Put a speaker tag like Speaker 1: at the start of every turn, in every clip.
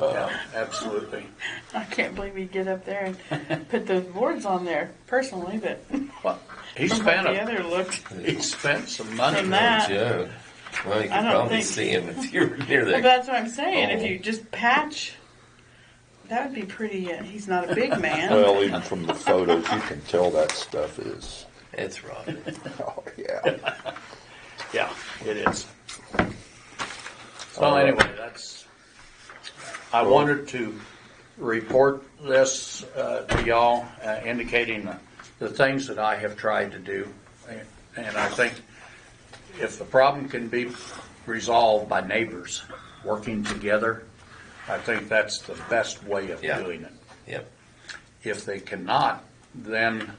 Speaker 1: Yeah, absolutely.
Speaker 2: I can't believe he'd get up there and put those boards on there personally, but
Speaker 1: Well, he
Speaker 2: from what
Speaker 1: spent
Speaker 2: the
Speaker 1: a,
Speaker 2: other looked.
Speaker 1: he spent some money.
Speaker 2: From that-
Speaker 3: Yeah.
Speaker 2: I
Speaker 3: Well, you could
Speaker 2: don't
Speaker 3: probably
Speaker 2: think-
Speaker 3: see him if you were near
Speaker 2: Well,
Speaker 3: that.
Speaker 2: that's what I'm saying. If you just patch, that would be pretty. Uh, he's not a big man.
Speaker 4: Well, even from the photos, you can tell that stuff is,
Speaker 3: It's Roger.
Speaker 4: oh, yeah.
Speaker 1: Yeah, it is. Well, anyway, that's, I wanted to report this uh, to y'all, uh, indicating the- the things that I have tried to do. And- And I think if the problem can be resolved by neighbors working together, I think that's the best way of
Speaker 3: Yeah.
Speaker 1: doing it.
Speaker 3: Yep.
Speaker 1: If they cannot, then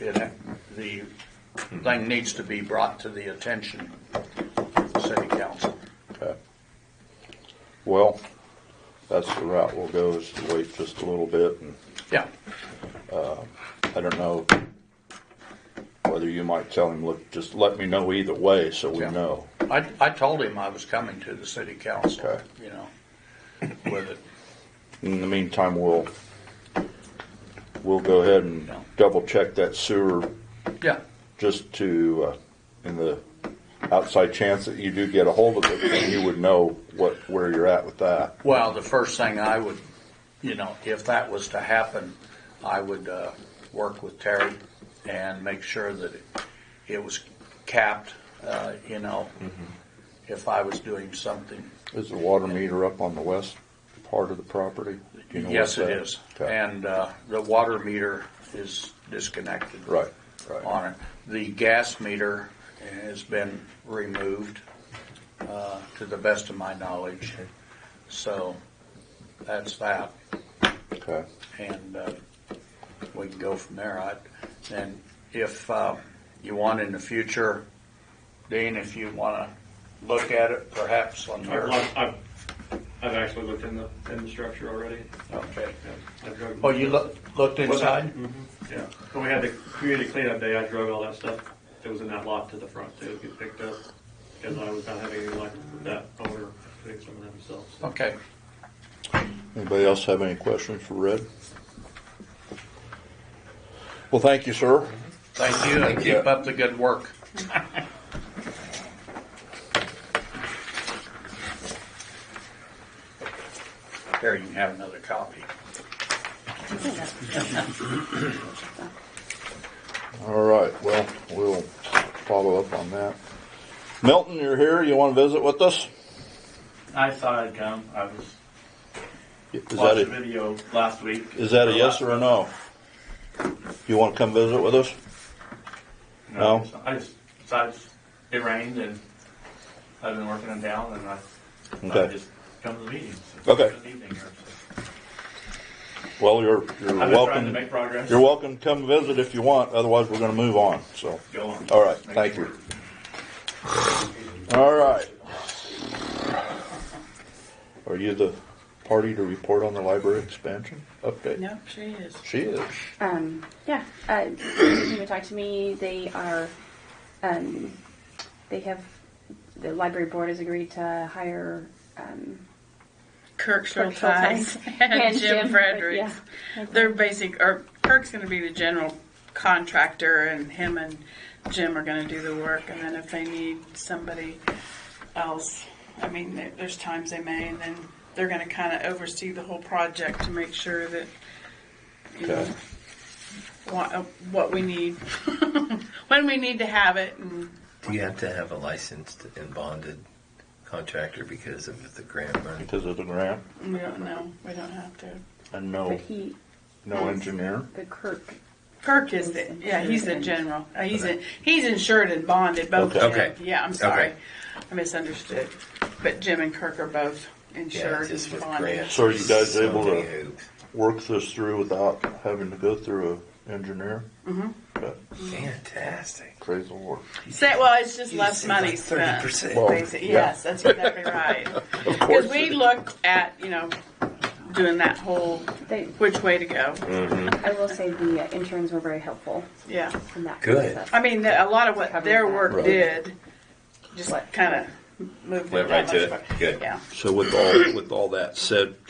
Speaker 1: it, the thing needs to be brought to the attention of the city council.
Speaker 4: Okay. Well, that's the route we'll go is to wait just a little bit and
Speaker 1: Yeah,
Speaker 4: I don't know whether you might tell him, look, just let me know either way so we
Speaker 1: Yeah.
Speaker 4: know.
Speaker 1: I, I told him I was coming to the city council,
Speaker 4: Okay.
Speaker 1: you know, with it.
Speaker 4: In the meantime, we'll, we'll go ahead and
Speaker 1: Yeah.
Speaker 4: double check that sewer
Speaker 1: Yeah,
Speaker 4: just to, uh, in the outside chance that you do get a hold of it, then you would know what, where you're at with that.
Speaker 1: well, the first thing I would, you know, if that was to happen, I would, uh, work with Terry and make sure that it, it was capped, uh, you know, if I was doing something.
Speaker 4: Is the water meter up on the west part of the property? Do you know
Speaker 1: Yes, it
Speaker 4: what's that?
Speaker 1: is.
Speaker 4: Okay.
Speaker 1: And uh, the water meter is disconnected.
Speaker 4: Right, right.
Speaker 1: On it. The gas meter has been removed, uh, to the best of my knowledge. So that's that.
Speaker 4: Okay,
Speaker 1: And uh, we can go from there. I- And if uh, you want in the future, Dean, if you want to look at it perhaps on
Speaker 5: I've,
Speaker 1: your,
Speaker 5: looked- I've, I've actually looked in the, in the structure already.
Speaker 1: okay.
Speaker 5: Yeah, I drove-
Speaker 1: Oh, you loo- looked inside?
Speaker 5: Mhm, Yeah, when we had the community cleanup day, I drove all that stuff that was in that lot to the front to get picked up, because I was not having any luck with that owner putting some of that himself. so.
Speaker 1: Okay.
Speaker 4: anybody else have any questions for Red? Well, thank you, sir.
Speaker 1: Thank you, and
Speaker 3: Thank you.
Speaker 1: keep up the good work. Here, you can have another copy.
Speaker 4: All right, well, we'll follow up on that. Milton, you're here, you wanna visit with us?
Speaker 6: I thought I'd come. I was
Speaker 4: Is that
Speaker 6: watched a
Speaker 4: a,
Speaker 6: video last week.
Speaker 4: is that a yes or a no? You wanna come visit with us? No?
Speaker 6: it's not. I just decided it rained and I've been working in town and I thought I'd
Speaker 4: Okay,
Speaker 6: just come to the meetings.
Speaker 4: Okay.
Speaker 6: This evening here, so.
Speaker 4: well, you're, you're
Speaker 6: I've been trying to
Speaker 4: welcome,
Speaker 6: make progress.
Speaker 4: you're welcome to come visit if you want, otherwise we're gonna move on, so.
Speaker 6: Go on.
Speaker 4: All right,
Speaker 6: Make
Speaker 4: thank
Speaker 6: it
Speaker 4: you.
Speaker 6: work.
Speaker 4: All right. Are you the party to report on the library expansion update?
Speaker 2: Nope, she is.
Speaker 4: She is.
Speaker 7: Um, yeah, uh, you can talk to me. They are, um, they have, the library board has agreed to hire, um,
Speaker 2: Kirk
Speaker 7: Kirk
Speaker 2: Schulteis
Speaker 7: Schulteis
Speaker 2: and, Jim, Fredericks.
Speaker 7: Fredericks,
Speaker 2: They're basic, or Kirk's going to be the general contractor, and him and Jim are going to do the work. And then if they need somebody else, I mean, there- there's times they may, and then they're going to kind of oversee the whole project to make sure that, you know,
Speaker 4: Okay.
Speaker 2: what, uh, what we need, when we need to have it, and
Speaker 3: You have to have a licensed and bonded contractor because of the grant money.
Speaker 4: Because of the grant
Speaker 2: we don't know. We don't have to.
Speaker 4: and
Speaker 7: but
Speaker 4: no,
Speaker 7: he,
Speaker 4: no engineer.
Speaker 7: the Kirk,
Speaker 2: Kirk is the yeah. He's the general. Uh, he's in, he's insured and bonded both. of
Speaker 3: Okay.
Speaker 2: them. Yeah, I'm sorry,
Speaker 3: Okay.
Speaker 2: I misunderstood. But Jim and Kirk are both
Speaker 3: Yeah,
Speaker 2: insured
Speaker 3: just
Speaker 2: and
Speaker 3: with
Speaker 2: bonded.
Speaker 3: grants.
Speaker 4: So are you guys
Speaker 3: so
Speaker 4: able to-
Speaker 3: many hoops.
Speaker 4: Work this through without having to go through an engineer?
Speaker 7: Mm-hmm.
Speaker 4: Okay,
Speaker 3: Fantastic.
Speaker 4: praise the Lord.
Speaker 2: Say, well, it's just
Speaker 3: You
Speaker 2: less
Speaker 3: said
Speaker 2: money
Speaker 3: like
Speaker 2: spent.
Speaker 3: 30%.
Speaker 4: Well,
Speaker 2: basi-
Speaker 4: yeah.
Speaker 2: Yes, that's exactly right. Because we looked at you know doing that whole
Speaker 7: they,
Speaker 2: which way to go.
Speaker 3: Mm.
Speaker 7: I will say the uh, interns were very helpful
Speaker 2: Yeah,
Speaker 7: in that
Speaker 3: Good.
Speaker 7: process.
Speaker 2: I mean the, a lot of what
Speaker 7: Covered
Speaker 2: their
Speaker 7: that.
Speaker 2: work
Speaker 4: Right.
Speaker 2: did just kind of moved it
Speaker 3: Went
Speaker 2: that
Speaker 3: right to
Speaker 2: much
Speaker 3: it. Good.
Speaker 2: Yeah.
Speaker 4: So with all, with all that said,